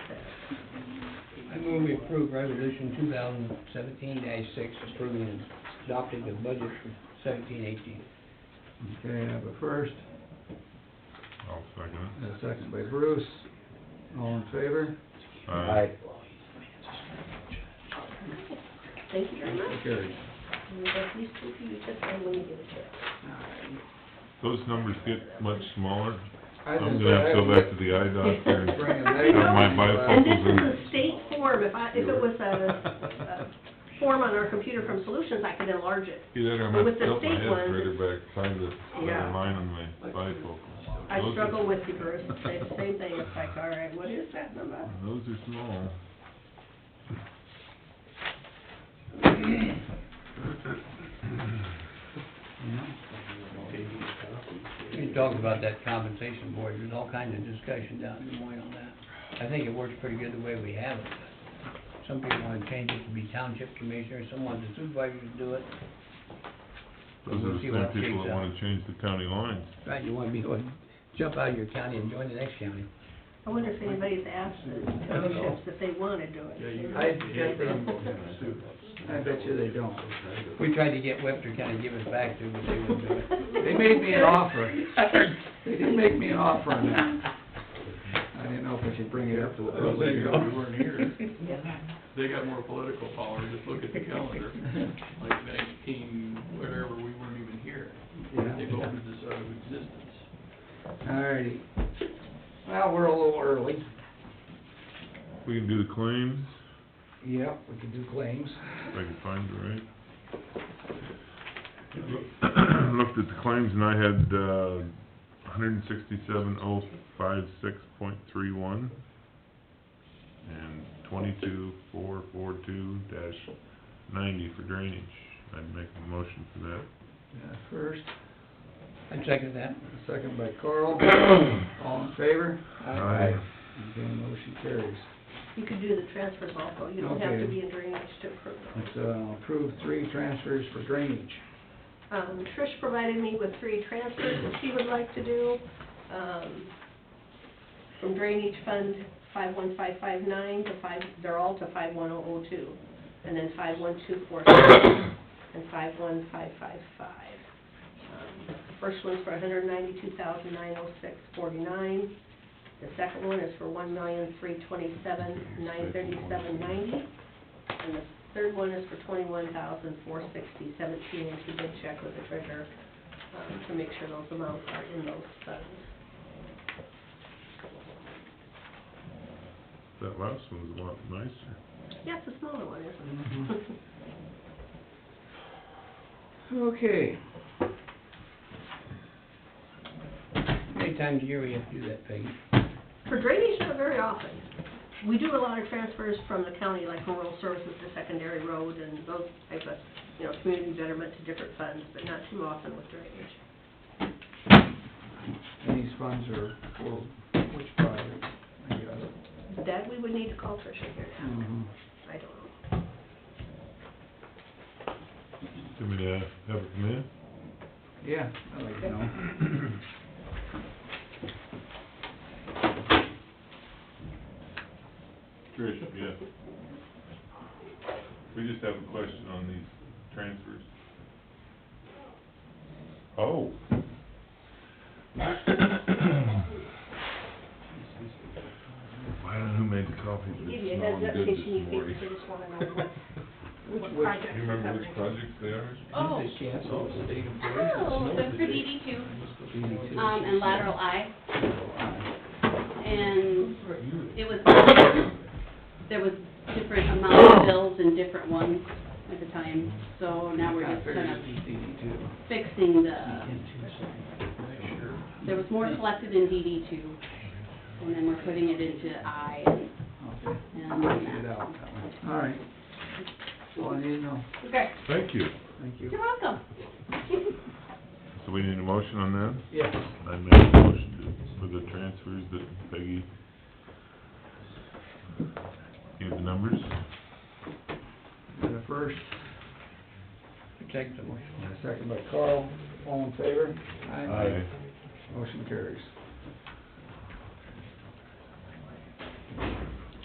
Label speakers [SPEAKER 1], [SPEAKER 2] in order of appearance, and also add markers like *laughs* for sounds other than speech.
[SPEAKER 1] move we approve resolution two thousand seventeen six, approving and adopting the budget for seventeen eighteen.
[SPEAKER 2] Okay, I have a first,
[SPEAKER 3] I'll second
[SPEAKER 2] and a second by Bruce. All in favor?
[SPEAKER 3] it. Aye.
[SPEAKER 4] Thank you very much.
[SPEAKER 2] Carried.
[SPEAKER 4] And if these two of you just want me to get a check.
[SPEAKER 3] Those numbers get much smaller.
[SPEAKER 2] I
[SPEAKER 3] I'm
[SPEAKER 2] didn't
[SPEAKER 3] gonna have to go back
[SPEAKER 2] say,
[SPEAKER 3] to the eye doctor
[SPEAKER 4] *laughs*
[SPEAKER 3] and
[SPEAKER 2] Bring 'em
[SPEAKER 3] *laughs* have my bifocals
[SPEAKER 4] And this is
[SPEAKER 3] in.
[SPEAKER 4] a state form, if I, if it was
[SPEAKER 3] *laughs*
[SPEAKER 4] a, a form on our computer from Solutions, I could enlarge it.
[SPEAKER 3] Either I'm gonna
[SPEAKER 4] With the
[SPEAKER 3] tilt my
[SPEAKER 4] state one-
[SPEAKER 3] head further back, find the
[SPEAKER 4] Yeah.
[SPEAKER 3] better line on my bifocals.
[SPEAKER 4] I
[SPEAKER 3] Those are-
[SPEAKER 4] struggle with the gross, same, same thing, it's like, all right, what is that number?
[SPEAKER 3] Those are small.
[SPEAKER 1] We talked about that compensation board, there's all kinds of discussion down in Des Moines on that. I think it works pretty good the way we have it, but some people wanna change it to be township commissioner, some want the supervisors to do it. But
[SPEAKER 3] Those are
[SPEAKER 1] we'll
[SPEAKER 3] the
[SPEAKER 1] see what
[SPEAKER 3] same people
[SPEAKER 1] shakes
[SPEAKER 3] that
[SPEAKER 1] out.
[SPEAKER 3] wanna change the county lines.
[SPEAKER 1] Right, you wanna be, going- jump out of your county and join the next county.
[SPEAKER 4] I wonder if anybody's asked the townships if they wanna do it.
[SPEAKER 2] I bet they, I bet you they don't.
[SPEAKER 1] We tried to get Webster County to give us back to, but they wouldn't do it.
[SPEAKER 2] They made me
[SPEAKER 1] *coughs*
[SPEAKER 2] an offer. They did make me an offer on that. I didn't know if I should bring it up to the
[SPEAKER 5] Well,
[SPEAKER 2] public.
[SPEAKER 5] there *laughs* you go, we weren't here.
[SPEAKER 4] Yeah.
[SPEAKER 5] They got more political power, just look at the calendar, like nineteen, whatever, we weren't even here. They
[SPEAKER 2] Yeah.
[SPEAKER 5] voted this out of existence.
[SPEAKER 2] Alrighty. Well, we're a little early.
[SPEAKER 3] We can do the claims,
[SPEAKER 2] Yep, we can do claims.
[SPEAKER 3] if I can find the right. *clears throat* Looked at the claims and I had, uh, hundred and sixty-seven oh five six point three one and twenty-two four four two dash ninety for drainage. I'd make a motion for that.
[SPEAKER 2] Uh, First,
[SPEAKER 1] I second that.
[SPEAKER 2] second by
[SPEAKER 3] *clears throat*
[SPEAKER 2] Carl. All in favor?
[SPEAKER 3] Aye.
[SPEAKER 2] Okay, motion carries.
[SPEAKER 4] You could do the transfers also, you don't have to
[SPEAKER 2] Okay.
[SPEAKER 4] be in drainage to approve them.
[SPEAKER 2] Let's, uh, approve three transfers for drainage.
[SPEAKER 4] Um, Trish provided me with three transfers that she would like to do, um, from drainage fund five one five five nine to five, they're all to five one oh oh two, and then five one two four seven, and five one five five five. First one's for 192,906.49. the second one is for one million three twenty-seven, nine thirty-seven ninety, and the third one is for twenty-one thousand, four sixty, seventeen, and she did check with the treasurer, um, to make sure those amounts are in those funds.
[SPEAKER 3] That last one's a lot nicer.
[SPEAKER 4] Yeah, it's a smaller one, isn't
[SPEAKER 2] Mhm.
[SPEAKER 4] it?
[SPEAKER 2] Okay,
[SPEAKER 1] How many times a year we have to do that, Peggy?
[SPEAKER 4] For drainage, not very often. We do a lot of transfers from the county, like from rural services to secondary road and those type of, you know, community betterment to different funds, but not too often with drainage.
[SPEAKER 2] and these funds are for which project, I guess?
[SPEAKER 4] That we would need to call Tricia here now.
[SPEAKER 3] Mm-hmm.
[SPEAKER 2] Mhm.
[SPEAKER 4] I don't know.
[SPEAKER 3] Do we have, have it come in?
[SPEAKER 2] Yeah, I like to know.
[SPEAKER 3] Trish, yeah. We just have a question on these transfers. Oh. I don't know who made the coffee, but
[SPEAKER 4] Give you
[SPEAKER 3] it's
[SPEAKER 4] a heads up,
[SPEAKER 3] smelling
[SPEAKER 4] in
[SPEAKER 3] good
[SPEAKER 4] case you
[SPEAKER 3] this
[SPEAKER 4] need things,
[SPEAKER 3] morning.
[SPEAKER 4] you just wanna know what,
[SPEAKER 2] which-
[SPEAKER 4] what
[SPEAKER 3] Do *laughs* you
[SPEAKER 4] projects we're
[SPEAKER 3] remember
[SPEAKER 4] covering.
[SPEAKER 3] which projects they are?
[SPEAKER 6] Oh.
[SPEAKER 1] Is she has-
[SPEAKER 2] So it's the date of birth?
[SPEAKER 6] Oh, they're for DD two,
[SPEAKER 2] DD2.
[SPEAKER 6] um, and lateral eye, and it was, there was different amount of bills and different ones at the time, so now we're just kind of
[SPEAKER 2] DD2.
[SPEAKER 6] fixing the, there was more collected in DD two, and then we're putting it into I and,
[SPEAKER 2] Okay.
[SPEAKER 6] and
[SPEAKER 2] Get it
[SPEAKER 6] that.
[SPEAKER 2] out that way. All right. Well, I need to know.
[SPEAKER 6] Okay,
[SPEAKER 3] Thank you.
[SPEAKER 2] Thank you.
[SPEAKER 6] you're welcome. *laughs*
[SPEAKER 3] So we need a motion on that?
[SPEAKER 2] Yes.
[SPEAKER 3] I make a motion to- for the transfers that Peggy gave the numbers.
[SPEAKER 2] Got a first,
[SPEAKER 1] Second the motion.
[SPEAKER 2] and a second by Carl. All in favor? Motion carries.